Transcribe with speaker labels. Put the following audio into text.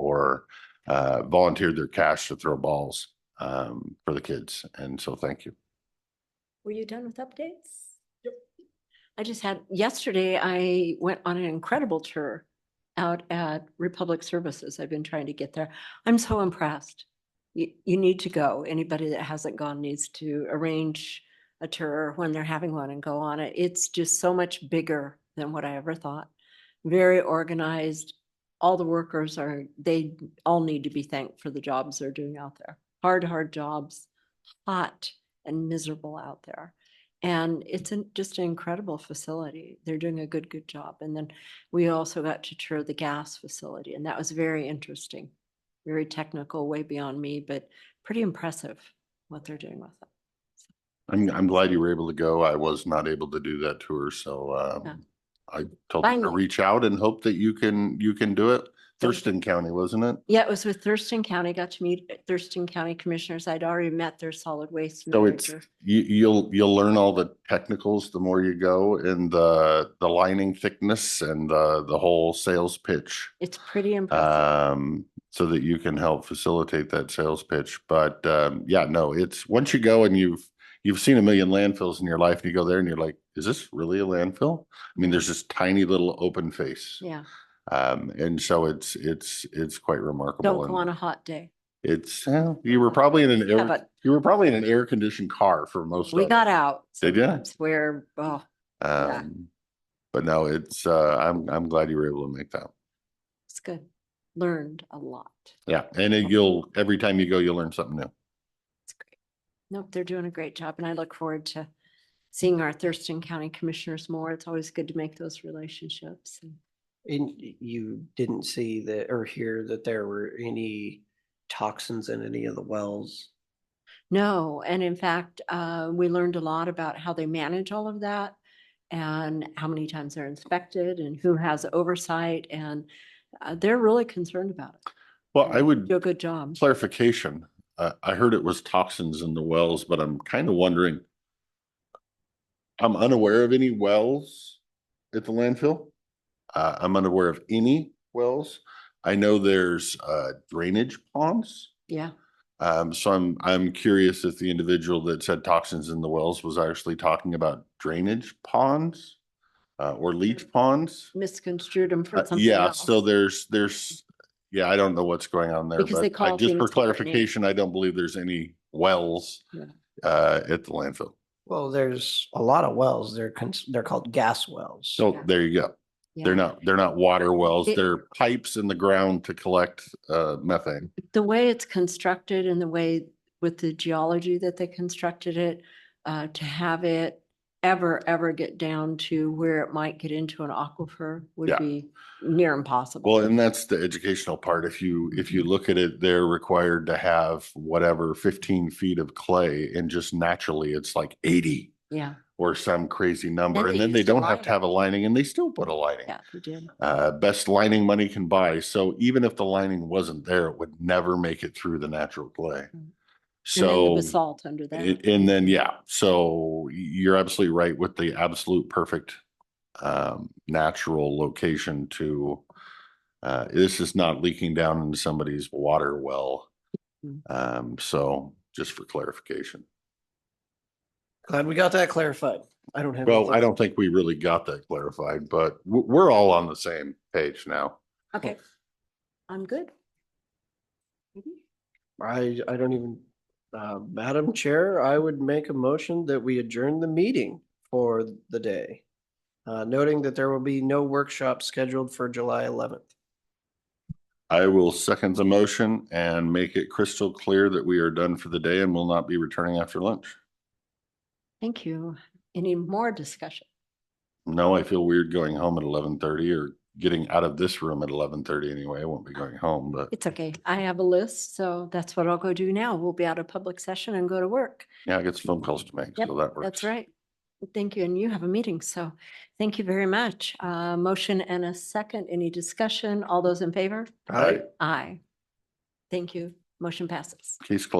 Speaker 1: or uh, volunteered their cash to throw balls um, for the kids. And so thank you.
Speaker 2: Were you done with updates? Yep. I just had, yesterday I went on an incredible tour out at Republic Services. I've been trying to get there. I'm so impressed. You, you need to go. Anybody that hasn't gone needs to arrange a tour when they're having one and go on it. It's just so much bigger than what I ever thought. Very organized. All the workers are, they all need to be thanked for the jobs they're doing out there. Hard, hard jobs, hot and miserable out there. And it's an, just an incredible facility. They're doing a good, good job. And then we also got to tour the gas facility, and that was very interesting. Very technical, way beyond me, but pretty impressive what they're doing with it.
Speaker 1: I'm, I'm glad you were able to go. I was not able to do that tour, so um,
Speaker 2: Yeah.
Speaker 1: I told them to
Speaker 2: Finally.
Speaker 1: reach out and hope that you can, you can do it.
Speaker 2: Thank you.
Speaker 1: Thurston County, wasn't it?
Speaker 2: Yeah, it was with Thurston County. Got to meet Thurston County commissioners. I'd already met their solid waste
Speaker 1: So it's-
Speaker 2: manager.
Speaker 1: You, you'll, you'll learn all the technicals the more you go and the, the lining thickness and the, the whole sales pitch.
Speaker 2: It's pretty impressive.
Speaker 1: um, so that you can help facilitate that sales pitch. But um, yeah, no, it's once you go and you've you've seen a million landfills in your life, and you go there and you're like, is this really a landfill? I mean, there's this tiny little open face,
Speaker 2: Yeah,
Speaker 1: um, and so it's it's it's quite remarkable.
Speaker 2: don't
Speaker 1: and
Speaker 2: go on a hot day.
Speaker 1: It's well, you were probably in an
Speaker 2: Yeah,
Speaker 1: air,
Speaker 2: but
Speaker 1: you were probably in an air conditioned car for most.
Speaker 2: we
Speaker 1: of
Speaker 2: got out.
Speaker 1: Did ya?
Speaker 2: sometimes Where, oh,
Speaker 1: it. Um, but no, it's uh, I'm I'm glad you were able to make that.
Speaker 2: it's good. Learned a lot.
Speaker 1: Yeah, and it- you'll every time you go, you'll learn something new.
Speaker 2: It's great. Nope, they're doing a great job and I look forward to seeing our Thurston County Commissioners more. It's always good to make those relationships. and-
Speaker 3: And y- you didn't see that or hear that there were any toxins in any of the wells?
Speaker 2: No, and in fact, uh, we learned a lot about how they manage all of that and how many times they're inspected and who has oversight and uh, they're really concerned about it.
Speaker 1: Well, I would
Speaker 2: Do a good job.
Speaker 1: clarification. Uh, I heard it was toxins in the wells, but I'm kind of wondering. I'm unaware of any wells at the landfill. Uh, I'm unaware of any wells. I know there's, uh, drainage ponds.
Speaker 2: Yeah,
Speaker 1: Um, so I'm, I'm curious if the individual that said toxins in the wells was actually talking about drainage ponds, uh, or leach ponds.
Speaker 2: misconstrued them for
Speaker 1: Uh,
Speaker 2: something
Speaker 1: Yeah,
Speaker 2: else.
Speaker 1: so there's, there's, yeah, I don't know what's going on there,
Speaker 2: Because they
Speaker 1: but I-
Speaker 2: call
Speaker 1: just
Speaker 2: things
Speaker 1: for
Speaker 2: different names.
Speaker 1: clarification, I don't believe there's any wells
Speaker 2: Yeah.
Speaker 1: uh, at the landfill.
Speaker 3: Well, there's a lot of wells. They're cons- they're called gas wells.
Speaker 1: So
Speaker 2: Yeah.
Speaker 1: there you go.
Speaker 2: Yeah.
Speaker 1: They're not, they're not water wells.
Speaker 2: It-
Speaker 1: They're pipes in the ground to collect uh, methane.
Speaker 2: the way it's constructed and the way with the geology that they constructed it, uh, to have it ever, ever get down to where it might get into an aquifer would
Speaker 1: Yeah.
Speaker 2: be near impossible.
Speaker 1: Well, and that's the educational part. If you, if you look at it, they're required to have whatever fifteen feet of clay and just naturally it's like eighty
Speaker 2: Yeah,
Speaker 1: or some crazy number.
Speaker 2: they
Speaker 1: And then they
Speaker 2: used a
Speaker 1: don't have
Speaker 2: liner.
Speaker 1: to have a lining and they still put a lining.
Speaker 2: yeah, we did.
Speaker 1: uh, best lining money can buy. So even if the lining wasn't there, it would never make it through the natural clay.
Speaker 2: Mm. And then the
Speaker 1: So,
Speaker 2: basalt under
Speaker 1: it-
Speaker 2: that.
Speaker 1: and then, yeah, so you're absolutely right with the absolute perfect um, natural location to, uh, this is not leaking down into somebody's water well.
Speaker 2: Mm.
Speaker 1: Um, so just for clarification.
Speaker 3: Glad we got that clarified. I don't have.
Speaker 1: Well,
Speaker 3: anything-
Speaker 1: I don't think we really got that clarified, but we're, we're all on the same page now.
Speaker 2: Okay. I'm good. Mhm.
Speaker 3: I, I don't even, uh, Madam Chair, I would make a motion that we adjourn the meeting for the day. Uh, noting that there will be no workshop scheduled for July eleventh.
Speaker 1: I will second the motion and make it crystal clear that we are done for the day and will not be returning after lunch.
Speaker 2: Thank you. Any more discussion?
Speaker 1: No, I feel weird going home at eleven thirty or getting out of this room at eleven thirty anyway. I won't be going home, but
Speaker 2: It's okay. I have a list, so that's what I'll go do now. We'll be out of public session and go to work.
Speaker 1: yeah, I get some phone calls to make,
Speaker 2: Yep,
Speaker 1: so that works.
Speaker 2: That's right. Thank you. And you have a meeting, so thank you very much. Uh, motion and a second. Any discussion? All those in favor?
Speaker 1: All right,
Speaker 2: Aye. Thank you. Motion passes.
Speaker 1: case closed.